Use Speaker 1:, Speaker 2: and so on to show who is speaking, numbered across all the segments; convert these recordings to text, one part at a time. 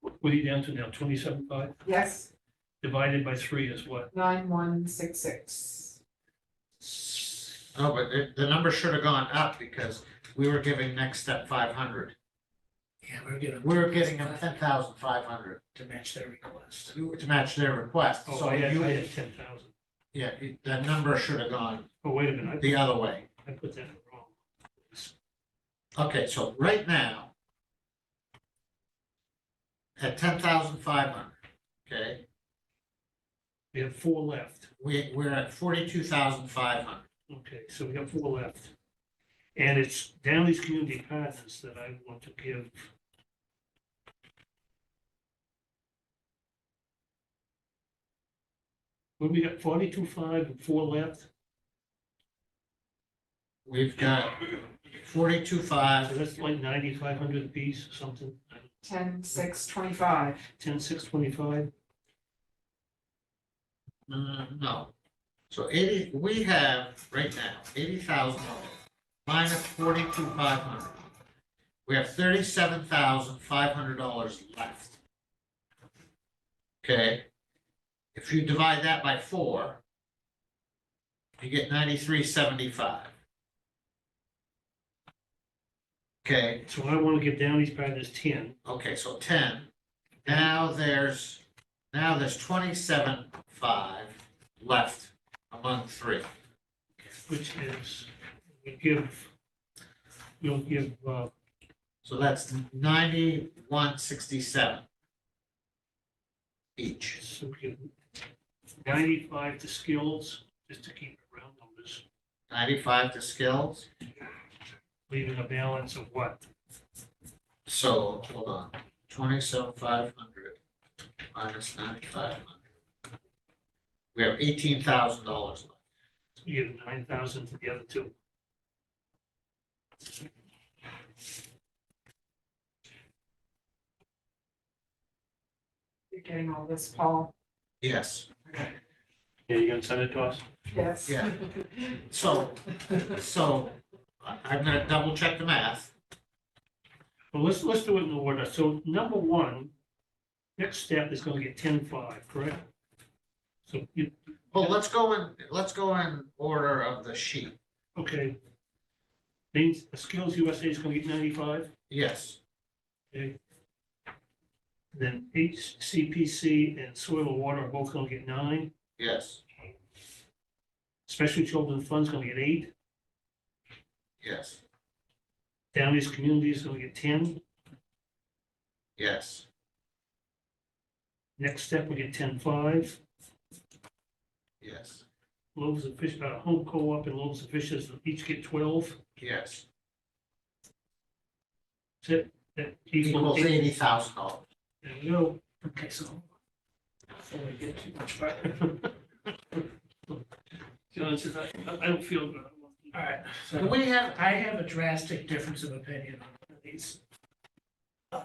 Speaker 1: What are you down to now, twenty-seven five?
Speaker 2: Yes,
Speaker 1: Divided by three is what?
Speaker 2: nine one six six.
Speaker 3: No, Oh, but the, the number should have gone up because we were giving next step five hundred.
Speaker 4: Yeah, we're gonna.
Speaker 3: We were getting them ten thousand five hundred
Speaker 4: To match their request.
Speaker 3: to to match their request,
Speaker 1: Oh,
Speaker 3: so
Speaker 1: I had, I
Speaker 3: you,
Speaker 1: had ten thousand.
Speaker 3: yeah, you- that number should have gone
Speaker 1: Oh, wait a minute,
Speaker 3: the other way.
Speaker 1: I, I put that in wrong.
Speaker 3: Okay, so right now. At ten thousand five hundred, okay,
Speaker 1: We have four left.
Speaker 3: we, we're at forty-two thousand five hundred.
Speaker 1: Okay, so we have four left. And it's Downey's Community Partners that I want to give. What we got, forty-two five and four left?
Speaker 3: We've got forty-two
Speaker 1: So
Speaker 3: five,
Speaker 1: that's like ninety-five hundred apiece or something,
Speaker 2: Ten six twenty five.
Speaker 1: ten, six, twenty-five.
Speaker 3: Mm, no. So eighty, we have right now eighty thousand minus forty-two five hundred. We have thirty-seven thousand five hundred dollars left. Okay, if you divide that by four, you get ninety-three seventy-five. Okay,
Speaker 1: So I want to give Downey's Partners ten,
Speaker 3: okay, so ten, now there's, now there's twenty-seven five left among three.
Speaker 1: which is, we give, you'll give, uh,
Speaker 3: So that's ninety-one sixty-seven. Each,
Speaker 1: so we give ninety-five to skills, just to keep it round numbers.
Speaker 3: ninety-five to skills,
Speaker 1: leaving a balance of what?
Speaker 3: so, hold on, twenty-seven five hundred minus ninety-five hundred. We have eighteen thousand dollars left.
Speaker 1: You give nine thousand to the other two.
Speaker 2: You're getting all this, Paul?
Speaker 3: Yes,
Speaker 1: Yeah, you gonna send it to us?
Speaker 2: Yes.
Speaker 3: Yeah. so, so, I- I'm gonna double check the math,
Speaker 1: Well, let's, let's do it in order. So number one, next step is gonna get ten-five, correct? So you,
Speaker 3: but let's go in, let's go in order of the sheet,
Speaker 1: okay. Means Skills USA is gonna get ninety-five,
Speaker 3: yes.
Speaker 1: then HCPC and Soil and Water are both gonna get nine.
Speaker 3: Yes,
Speaker 1: Special Children's Fund's gonna get eight.
Speaker 3: yes,
Speaker 1: Downey's Community is gonna get ten.
Speaker 3: yes,
Speaker 1: Next step, we get ten-five.
Speaker 3: yes,
Speaker 1: Loaves of Fish, uh, Home Co-op and Loaves of Fishes each get twelve.
Speaker 3: yes.
Speaker 1: That's it. That
Speaker 3: Equals
Speaker 1: equals eight.
Speaker 3: eighty thousand dollars.
Speaker 1: There we go. Okay, so. Before we get too much further. John says, I, I don't feel good.
Speaker 4: All right,
Speaker 3: Do
Speaker 4: so
Speaker 3: we have,
Speaker 4: I have a drastic difference of opinion on one of these. Uh,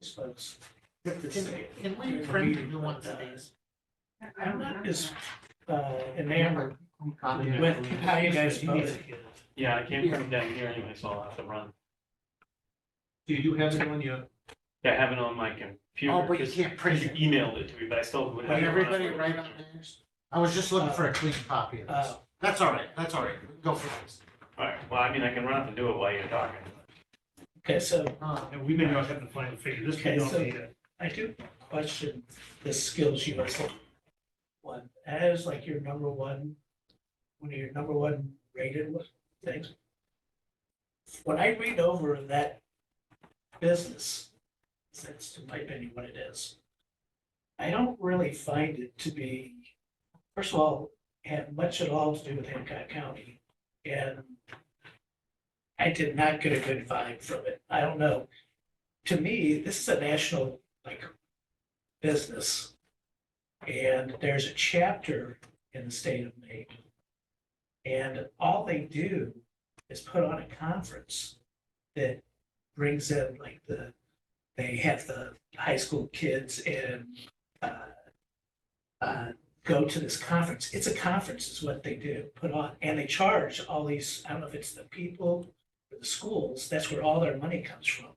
Speaker 4: These folks. get this
Speaker 3: can
Speaker 4: thing.
Speaker 3: can we print a new one for these?
Speaker 4: I'm not as uh, enamored
Speaker 3: Copy.
Speaker 4: with how you guys voted.
Speaker 5: Yeah, I can't put them down here anyway, so I'll have to run.
Speaker 1: Do you have it on your?
Speaker 5: Yeah, I have it on my computer.
Speaker 3: Oh, but you
Speaker 5: 'cause-
Speaker 3: can't
Speaker 5: 'cause
Speaker 3: print
Speaker 5: you
Speaker 3: it.
Speaker 5: emailed it to me, but I still would
Speaker 3: Would
Speaker 5: have. it on my
Speaker 3: everybody write on
Speaker 5: computer.
Speaker 3: theirs? I was just looking for a clean copy of this.
Speaker 4: Uh,
Speaker 3: That's all right, that's all right. We can Go for this.
Speaker 5: All right, well, I mean, I can run up and do it while you're talking.
Speaker 4: Okay, so
Speaker 3: Uh,
Speaker 1: And we may not have the final figure. This may
Speaker 4: Okay,
Speaker 1: not
Speaker 4: so-
Speaker 1: be it.
Speaker 4: I do question the skills USA one, as like your number one, one of your number one rated things. When I read over that business, that's in my opinion what it is. I don't really find it to be, first of all, have much at all to do with Hancock County. And I did not get a good vibe from it. I don't know. To me, this is a national like business. And there's a chapter in the state of Maine. And all they do is put on a conference that brings in like the, they have the high school kids and uh, uh, go to this conference. It's a conference is what they do, put on, and they charge all these, I don't know if it's the people or the schools, that's where all their money comes from.